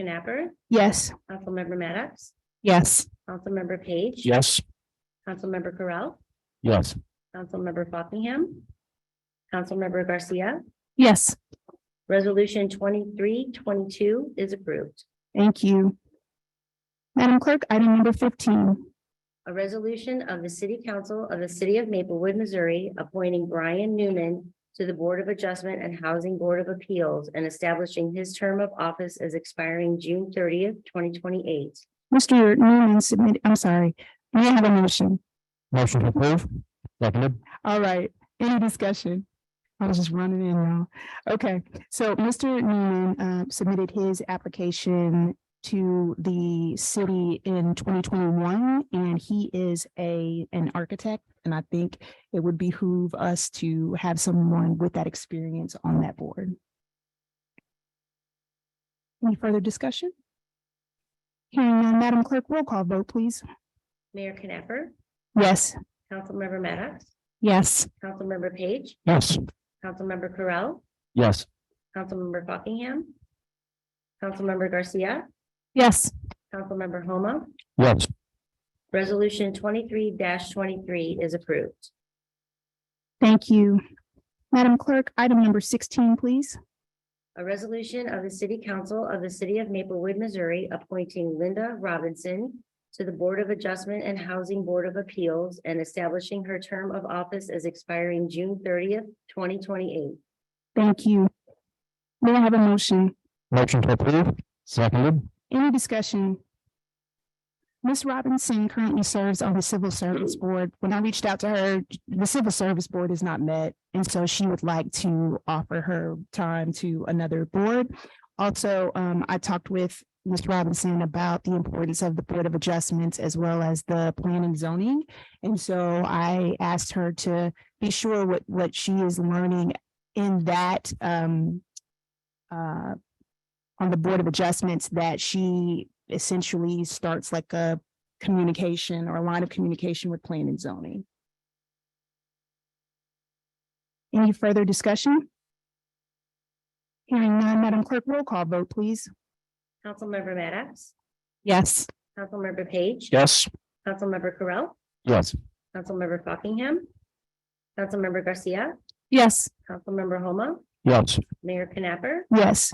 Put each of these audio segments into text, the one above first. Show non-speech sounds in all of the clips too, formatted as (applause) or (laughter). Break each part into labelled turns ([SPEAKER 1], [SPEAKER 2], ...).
[SPEAKER 1] Knapper,
[SPEAKER 2] Yes.
[SPEAKER 1] Councilmember Maddox,
[SPEAKER 2] Yes.
[SPEAKER 1] Councilmember Page.
[SPEAKER 3] Yes.
[SPEAKER 1] Councilmember Correll,
[SPEAKER 3] Yes.
[SPEAKER 1] Councilmember Fockingham, Councilmember Garcia.
[SPEAKER 2] Yes.
[SPEAKER 1] Resolution twenty-three twenty-two is approved.
[SPEAKER 2] Thank you. Madam Clerk, item number fifteen.
[SPEAKER 1] A resolution of the City Council of the City of Maplewood, Missouri, appointing Brian Newman to the Board of Adjustment and Housing Board of Appeals and establishing his term of office as expiring June thirtieth, twenty twenty-eight.
[SPEAKER 2] Mr. Newman submitted, I'm sorry, may I have a motion?
[SPEAKER 3] Motion to approve. Seconded.
[SPEAKER 2] All right, any discussion? I was just running in now. Okay, so Mr. Newman uh, submitted his application to the city in twenty twenty-one, and he is a, an architect. And I think it would behoove us to have someone with that experience on that board. Any further discussion? Hearing none, Madam Clerk, roll call vote, please.
[SPEAKER 1] Mayor Knapper,
[SPEAKER 2] Yes.
[SPEAKER 1] Councilmember Maddox,
[SPEAKER 2] Yes.
[SPEAKER 1] Councilmember Page,
[SPEAKER 3] Yes.
[SPEAKER 1] Councilmember Correll,
[SPEAKER 3] Yes.
[SPEAKER 1] Councilmember Buckingham, Councilmember Garcia,
[SPEAKER 2] Yes.
[SPEAKER 1] Councilmember Homa.
[SPEAKER 3] Yes.
[SPEAKER 1] Resolution twenty-three twenty-three is approved.
[SPEAKER 2] Thank you. Madam Clerk, item number sixteen, please.
[SPEAKER 1] A resolution of the City Council of the City of Maplewood, Missouri, appointing Linda Robinson to the Board of Adjustment and Housing Board of Appeals and establishing her term of office as expiring June thirtieth, twenty twenty-eight.
[SPEAKER 2] Thank you. May I have a motion?
[SPEAKER 3] Motion to approve. Seconded.
[SPEAKER 2] Any discussion? Ms. Robinson currently serves on the Civil Service Board. When I reached out to her, the Civil Service Board is not met, and so she would like to offer her time to another board. Also, um, I talked with Ms. Robinson about the importance of the Board of Adjustments as well as the Plan and Zoning. And so I asked her to be sure what, what she is learning in that, um, uh, on the Board of Adjustments that she essentially starts like a communication or a line of communication with planning and zoning. Any further discussion? Hearing none, Madam Clerk, roll call vote, please.
[SPEAKER 1] Councilmember Maddox,
[SPEAKER 2] Yes.
[SPEAKER 1] Councilmember Page.
[SPEAKER 3] Yes.
[SPEAKER 1] Councilmember Correll,
[SPEAKER 3] Yes.
[SPEAKER 1] Councilmember Buckingham, Councilmember Garcia,
[SPEAKER 2] Yes.
[SPEAKER 1] Councilmember Homa,
[SPEAKER 3] Yes.
[SPEAKER 1] Mayor Knapper.
[SPEAKER 2] Yes.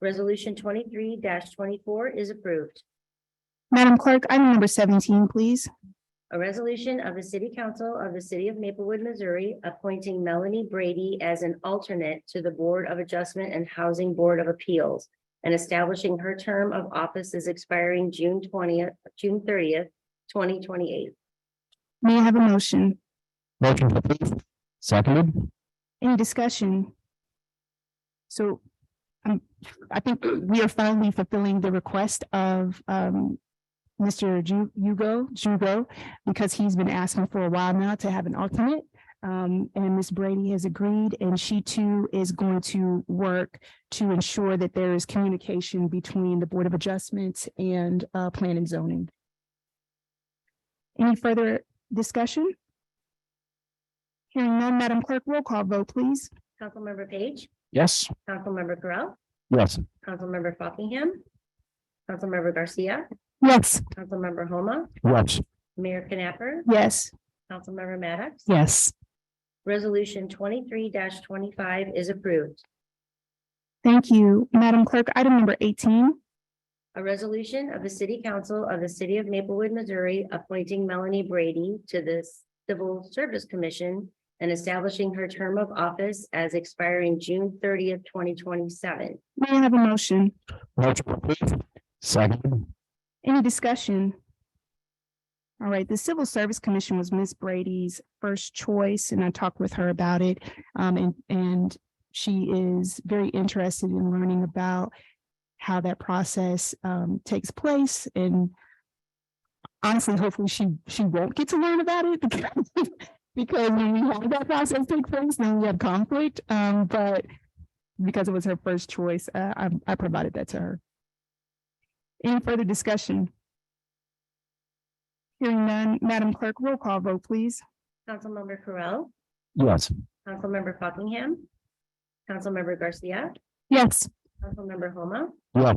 [SPEAKER 1] Resolution twenty-three twenty-four is approved.
[SPEAKER 2] Madam Clerk, item number seventeen, please.
[SPEAKER 1] A resolution of the City Council of the City of Maplewood, Missouri, appointing Melanie Brady as an alternate to the Board of Adjustment and Housing Board of Appeals and establishing her term of office as expiring June twentieth, June thirtieth, twenty twenty-eight.
[SPEAKER 2] May I have a motion?
[SPEAKER 3] Motion to approve. Seconded.
[SPEAKER 2] Any discussion? So, um, I think we are finally fulfilling the request of, um, Mr. Ju- Hugo, Jugo, because he's been asking for a while now to have an alternate. Um, and Ms. Brady has agreed, and she too is going to work to ensure that there is communication between the Board of Adjustments and, uh, Plan and Zoning. Any further discussion? Hearing none, Madam Clerk, roll call vote, please.
[SPEAKER 1] Councilmember Page,
[SPEAKER 3] Yes.
[SPEAKER 1] Councilmember Correll,
[SPEAKER 3] Yes.
[SPEAKER 1] Councilmember Buckingham, Councilmember Garcia,
[SPEAKER 2] Yes.
[SPEAKER 1] Councilmember Homa,
[SPEAKER 3] Yes.
[SPEAKER 1] Mayor Knapper,
[SPEAKER 2] Yes.
[SPEAKER 1] Councilmember Maddox.
[SPEAKER 2] Yes.
[SPEAKER 1] Resolution twenty-three twenty-five is approved.
[SPEAKER 2] Thank you, Madam Clerk. Item number eighteen.
[SPEAKER 1] A resolution of the City Council of the City of Maplewood, Missouri, appointing Melanie Brady to the Civil Service Commission and establishing her term of office as expiring June thirtieth, twenty twenty-seven.
[SPEAKER 2] May I have a motion?
[SPEAKER 3] Motion to approve. Seconded.
[SPEAKER 2] Any discussion? All right, the Civil Service Commission was Ms. Brady's first choice, and I talked with her about it. Um, and, and she is very interested in learning about how that process, um, takes place and honestly, hopefully she, she won't get to learn about it (laughs) because, because when we have that process take place, then we have conflict. Um, but because it was her first choice, uh, I, I provided that to her. Any further discussion? Hearing none, Madam Clerk, roll call vote, please.
[SPEAKER 1] Councilmember Correll,
[SPEAKER 3] Yes.
[SPEAKER 1] Councilmember Buckingham, Councilmember Garcia,
[SPEAKER 2] Yes.
[SPEAKER 1] Councilmember Homa,
[SPEAKER 3] Yes.